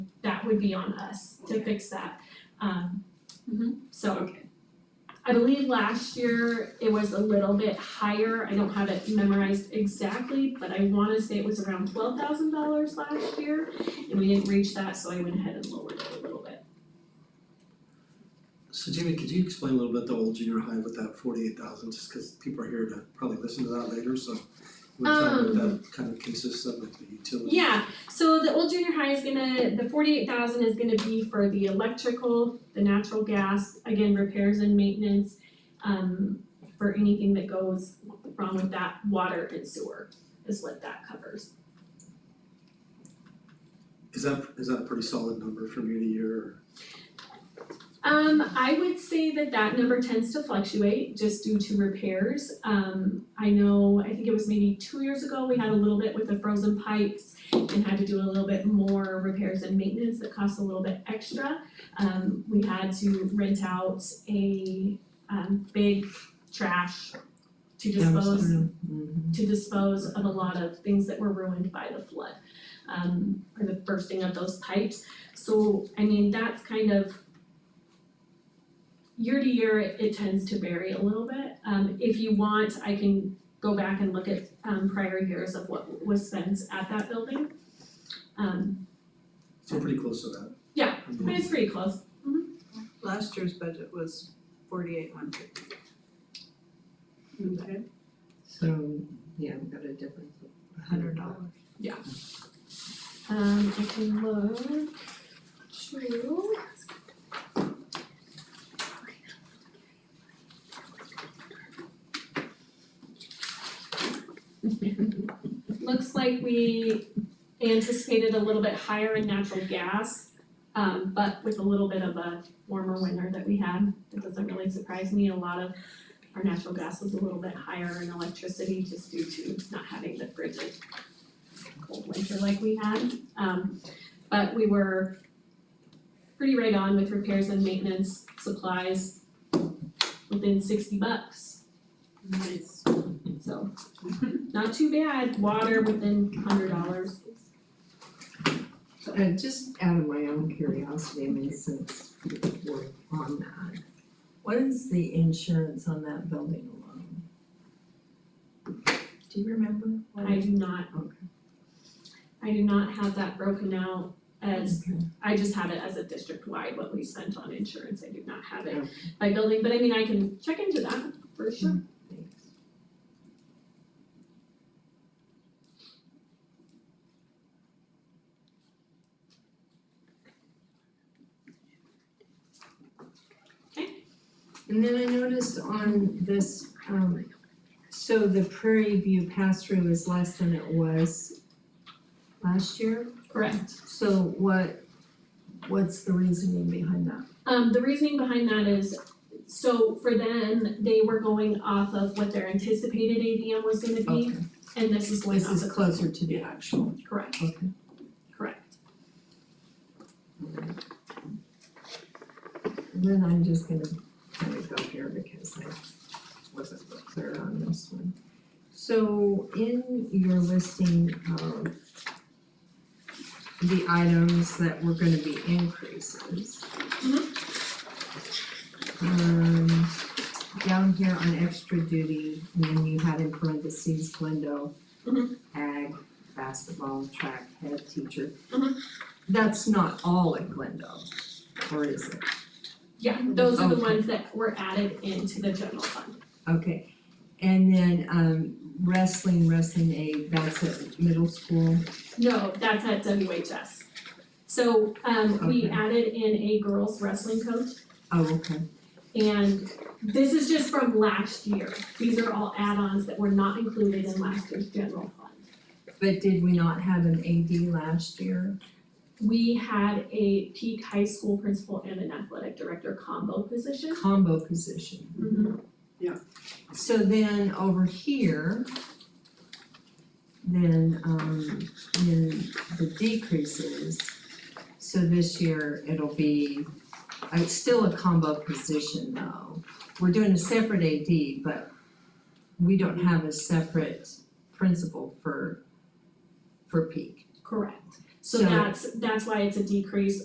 would be on us to fix that. Um, so Okay. I believe last year it was a little bit higher. I don't have it memorized exactly, but I wanna say it was around twelve thousand dollars last year. And we didn't reach that, so I went ahead and lowered it a little bit. So Jamie, could you explain a little bit the old junior high with that forty-eight thousand, just cause people are here to probably listen to that later, so we tell them what that kind of consists of, like the utility. Um, Yeah, so the old junior high is gonna, the forty-eight thousand is gonna be for the electrical, the natural gas, again, repairs and maintenance. Um, for anything that goes wrong with that, water and sewer is what that covers. Is that, is that a pretty solid number from year to year, or Um, I would say that that number tends to fluctuate just due to repairs. Um, I know, I think it was maybe two years ago, we had a little bit with the frozen pipes and had to do a little bit more repairs and maintenance that cost a little bit extra. Um, we had to rent out a, um, big trash to dispose to dispose of a lot of things that were ruined by the flood, um, or the bursting of those pipes. So, I mean, that's kind of year to year, it, it tends to vary a little bit. Um, if you want, I can go back and look at, um, prior years of what was spent at that building. Um, so pretty close to that? Yeah. I mean, but it's pretty close. Last year's budget was forty-eight one fifty. Okay. So, yeah, we got a difference of a Hundred hundred dollars. dollars. Um, I can look to. Looks like we anticipated a little bit higher in natural gas, um, but with a little bit of a warmer winter that we had, it doesn't really surprise me, a lot of our natural gas was a little bit higher in electricity just due to not having the frigid cold winter like we had. Um, but we were pretty right on with repairs and maintenance supplies within sixty bucks. Nice. So, not too bad, water within hundred dollars. Uh, just out of my own curiosity, I mean, since we're on that, what is the insurance on that building alone? Do you remember? what I it- do not, Okay. I do not have that broken out as, Okay. I just have it as a district wide, what we spent on insurance, I do not have it Okay. by building, but I mean, I can check into that for sure. Thanks. And then I noticed on this, um, so the Prairie View pass-through is less than it was last year. Correct. So what, what's the reasoning behind that? Um, the reasoning behind that is, so for them, they were going off of what their anticipated ADM was gonna be, Okay, and this is going this off of. is closer to the actual, Correct, okay. correct. And then I'm just gonna kind of go here because I wasn't clear on this one. So in your listing of the items that were gonna be increases. Um, down here on extra duty, and then you had in parentheses Glendo, Mhm. ag, basketball, track, head teacher. Mhm. That's not all at Glendo, or is it? Yeah, those are the Okay. ones that were added into the general fund. Okay, and then um wrestling, wrestling aid, that's at middle school, No, that's at WHS. So, um, we Okay. added in a girls wrestling coach, oh, okay, and this is just from last year. These are all add-ons that were not included in last year's general fund. but did we not have an AD last year? We had a peak high school principal and an athletic director combo position. Combo position, so then over here. Then um then the decreases, so this year it'll be, uh, it's still a combo position though. We're doing a separate AD, but we don't have a separate principal for for peak. Correct. So So- that's, that's why it's a decrease